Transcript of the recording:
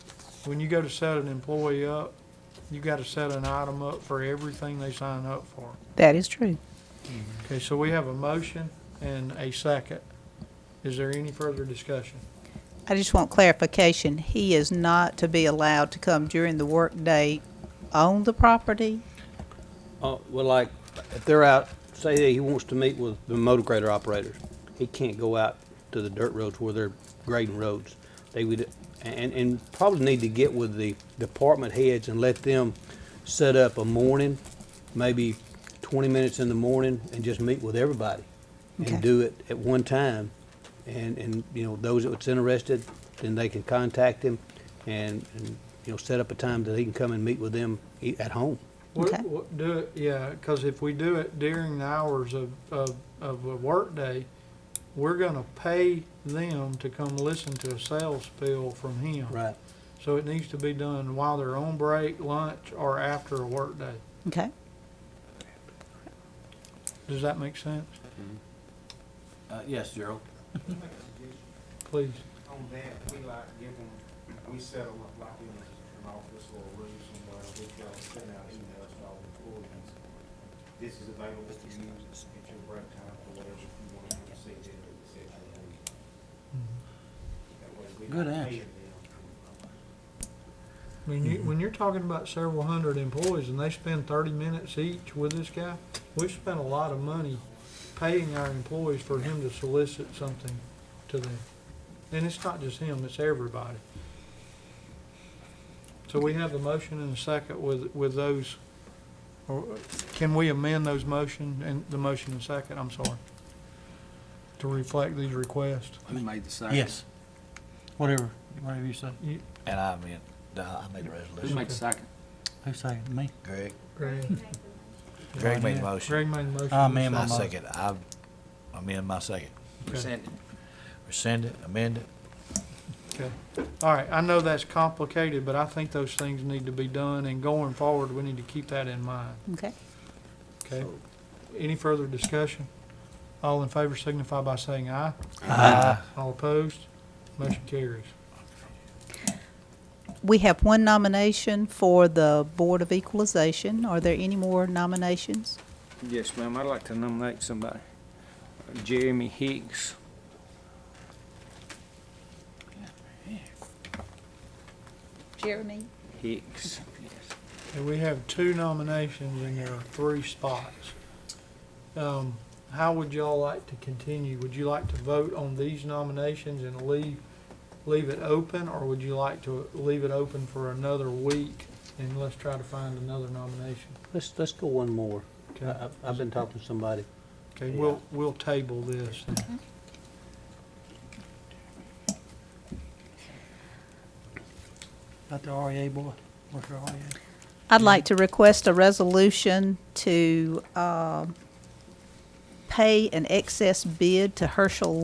when you go to set an employee up, you gotta set an item up for everything they sign up for. That is true. Okay, so we have a motion and a second. Is there any further discussion? I just want clarification. He is not to be allowed to come during the workday on the property? Uh, well, like, if they're out, say that he wants to meet with the motor grader operators, he can't go out to the dirt roads where they're grading roads. They would, and, and probably need to get with the department heads and let them set up a morning, maybe twenty minutes in the morning, and just meet with everybody. Okay. And do it at one time, and, and, you know, those that's interested, then they can contact him and, and, you know, set up a time that he can come and meet with them e- at home. What- Okay. what- Do it, yeah, cause if we do it during the hours of, of, of a workday, we're gonna pay them to come listen to a sales spiel from him. Right. So it needs to be done while they're on break, lunch, or after a workday. Okay. Does that make sense? Uh, yes, Gerald. Please. On that, we like give them, we settle up like in an office or a room somewhere, we try to send out emails to all employees. This is available to you at your break time for whatever you want to say to the session. That way we Good not answer. paying them. When you, when you're talking about several hundred employees and they spend thirty minutes each with this guy, we spent a lot of money paying our employees for him to solicit something to them. And it's not just him, it's everybody. So we have the motion and a second with, with those, or can we amend those motion and the motion and second, I'm sorry, to reflect these requests? Who made the second? Yes. Whatever, whatever you say. You- And I mean, I made the Who resolution. made the second? Who seconded me? Greg? Greg. Greg made the motion. Greg made the motion. I amend my I motion. second, I, I'm in my second. Okay. Rescind it. Rescind it, amend it. Okay. All right, I know that's complicated, but I think those things need to be done, and going forward, we need to keep that in mind, Okay. okay? Any further discussion? All in favor signify by saying aye. All opposed? Motion carries. We have one nomination for the Board of Equalization. Are there any more nominations? Yes, ma'am, I'd like to nominate somebody, Jeremy Hicks. Jeremy? Hicks. And we have two nominations, and there are three spots. Um, How would y'all like to continue? Would you like to vote on these nominations and leave, leave it open, or would you like to leave it open for another week, and let's try to find another nomination? Let's, let's go one more. I- Okay, I've, I've been talking to somebody. okay, we'll, we'll table this. About the REA boy, what's your REA? I'd like to request a resolution uh, to um, pay an excess bid to Herschel